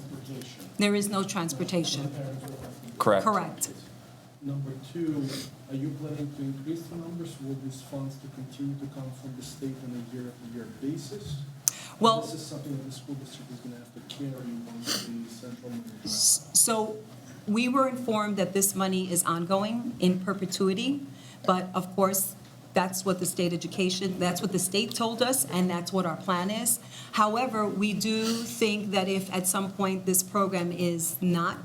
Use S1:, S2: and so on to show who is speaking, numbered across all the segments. S1: transportation.
S2: There is no transportation.
S1: Parents are affected.
S3: Correct.
S2: Correct.
S1: Number two, are you planning to increase the numbers? Will these funds to continue to come from the state on a year-to-year basis?
S2: Well-
S1: This is something that the school district is gonna have to carry once the central manager.
S2: So we were informed that this money is ongoing in perpetuity, but of course, that's what the state education, that's what the state told us, and that's what our plan is. However, we do think that if at some point this program is not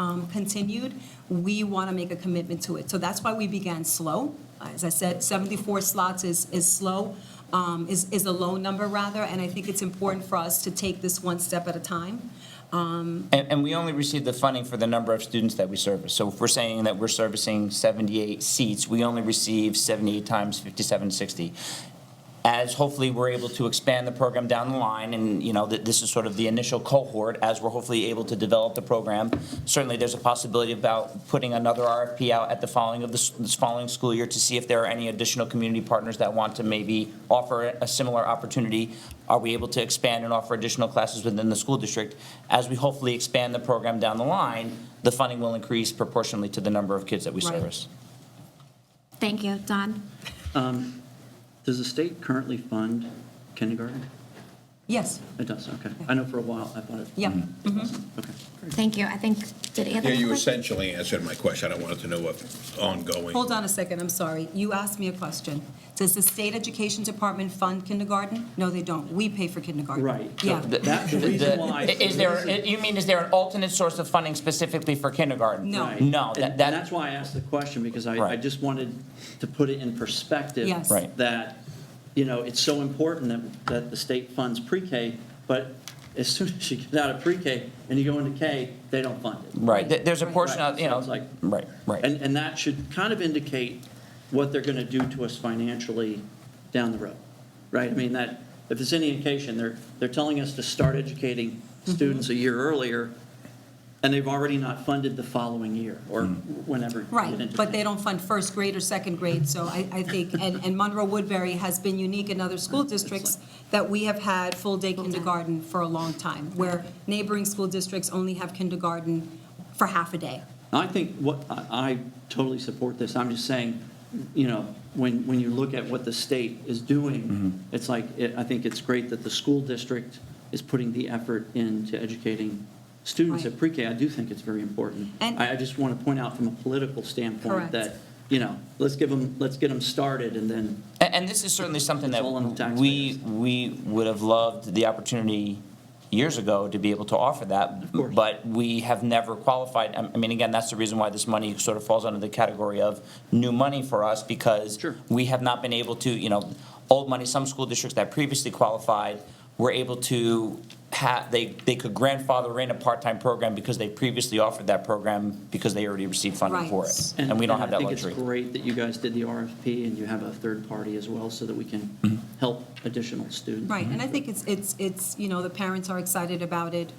S2: um, continued, we want to make a commitment to it. So that's why we began slow. As I said, 74 slots is, is slow, um, is, is a low number rather, and I think it's important for us to take this one step at a time.
S3: And, and we only receive the funding for the number of students that we service. So if we're saying that we're servicing 78 seats, we only receive 78 times 5760. As hopefully we're able to expand the program down the line, and, you know, th- this is sort of the initial cohort, as we're hopefully able to develop the program, certainly there's a possibility about putting another RFP out at the following of the, s- this following school year to see if there are any additional community partners that want to maybe offer a similar opportunity. Are we able to expand and offer additional classes within the school district? As we hopefully expand the program down the line, the funding will increase proportionally to the number of kids that we
S2: Right.
S3: service.
S4: Thank you, Don.
S5: Um, Does the state currently fund kindergarten?
S2: Yes,
S5: It does, okay. I know for a while, I thought it.
S2: yeah.
S5: Okay.
S4: Thank you. I think, did Anthony?
S6: Yeah, you essentially answered my question. I wanted to know what ongoing.
S2: Hold on a second, I'm sorry. You asked me a question. Does the state education department fund kindergarten? No, they don't. We pay for kindergarten.
S5: Right. So
S2: Yeah.
S5: th- That, the reason why.
S3: The- Is there, you mean, is there an alternate source of funding specifically for kindergarten?
S2: No.
S5: Right.
S3: No,
S5: And-
S3: that,
S5: And
S3: that,
S5: that's why I asked the question, because I, I
S3: Right.
S5: just wanted to put it in perspective.
S2: Yes. Right.
S5: That, you know, it's so important that, that the state funds pre-K, but as soon as you get out of pre-K and you go into K, they don't fund it.
S3: right, There- there's a
S2: Right.
S3: portion of, you know,
S5: Sounds like-
S3: right, right.
S5: And, and that should kind of indicate what they're going to do to us financially down the road, right? I mean, that, if there's any indication, they're, they're telling us to start educating students a year earlier, and they've already not funded the following year, or whenever. you get
S2: Right,
S5: into-
S2: but they don't fund first grade or second grade, so I, I think, and, and Monroe Woodbury has been unique in other school districts that we have had full-day kindergarten for a long time, where neighboring school districts only have kindergarten for half a day.
S5: I think what, I I totally support this. I'm just saying, you know, when, when you look at what the state is doing,
S3: Mm-hmm.
S5: it's like, it- I think it's great that the school district is putting the effort into educating students
S2: Right.
S5: at pre-K. I do think it's very important.
S2: And-
S5: I I just want to point out from a political
S2: Correct.
S5: standpoint that, you know, let's give them, let's get them started and then,
S3: A- And this is certainly something
S5: It's
S3: that
S5: all on the taxpayers.
S3: we, we would have loved the opportunity years ago to be able to offer that.
S5: course.
S3: But we have never qualified. I I mean, again, that's the reason why this money sort of falls under the category of new money for us because
S5: Sure.
S3: we have not been able to, you know, old money, some school districts that previously qualified were able to have, they, they could grandfather in a part-time program because they previously offered that program because they already received funding for
S2: Right.
S3: it. And we don't have that
S5: I think
S3: luxury.
S5: it's great that you guys did the RFP and you have a third party as well so that we
S3: Mm-hmm.
S5: can help additional students.
S2: Right, and I think it's, it's, it's, you know, the parents are excited about it.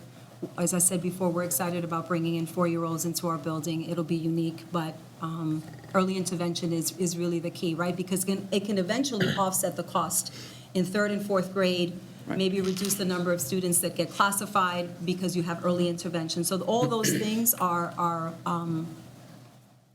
S2: As I said before, we're excited about bringing in four-year-olds into our building. It'll be unique, but um, early intervention is, is really the key, right? Because can- it can eventually offset the cost in third and fourth grade,
S5: Right.
S2: maybe reduce the number of students that get classified because you have early intervention. So all those things are, are, um,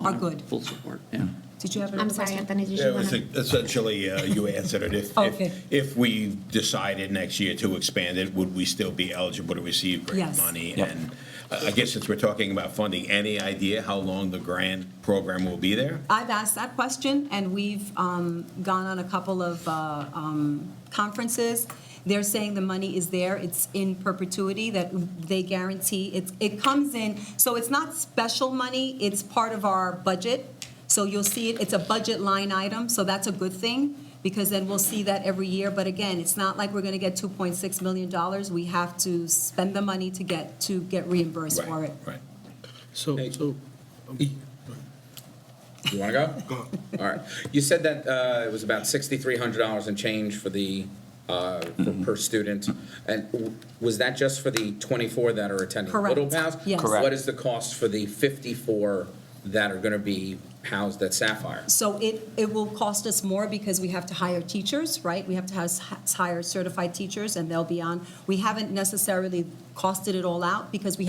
S2: are good.
S5: Full support,
S3: Mm-hmm.
S5: yeah.
S2: Did you have
S4: I'm
S2: another
S4: sorry,
S2: question?
S4: Anthony, did
S6: Yeah,
S4: you
S6: it
S4: want
S6: was
S4: to?
S6: essentially, uh, you answered it. If,
S2: Okay.
S6: if, if we decided next year to expand it, would we still be eligible to receive grant
S2: Yes.
S6: money?
S3: Yep.
S6: And uh, I I guess since we're talking about funding, any idea how long the grant program will be there?
S2: I've asked that question, and we've um, gone on a couple of uh, um, conferences. They're saying the money is there, it's in perpetuity, that they guarantee, it, it comes in, so it's not special money, it's part of our budget. So you'll see it, it's a budget line item, so that's a good thing, because then we'll see that every year. But again, it's not like we're gonna get $2.6 million, we have to spend the money to get, to get reimbursed for
S6: Right,
S2: it.
S6: right.
S7: So, so,
S8: You want to go? Go. All right. You said that uh, it was about sixty-three hundred dollars and change for the, uh, for- per student. And w- was that just for the twenty-four that are attending
S2: Correct.
S8: Little Pals?
S2: Yes.
S3: Correct.
S8: What is the cost for the fifty-four that are going to be housed at Sapphire?
S2: So it, it will cost us more because we have to hire teachers, right? We have to has- hire certified teachers, and they'll be on. We haven't necessarily costed it all out because we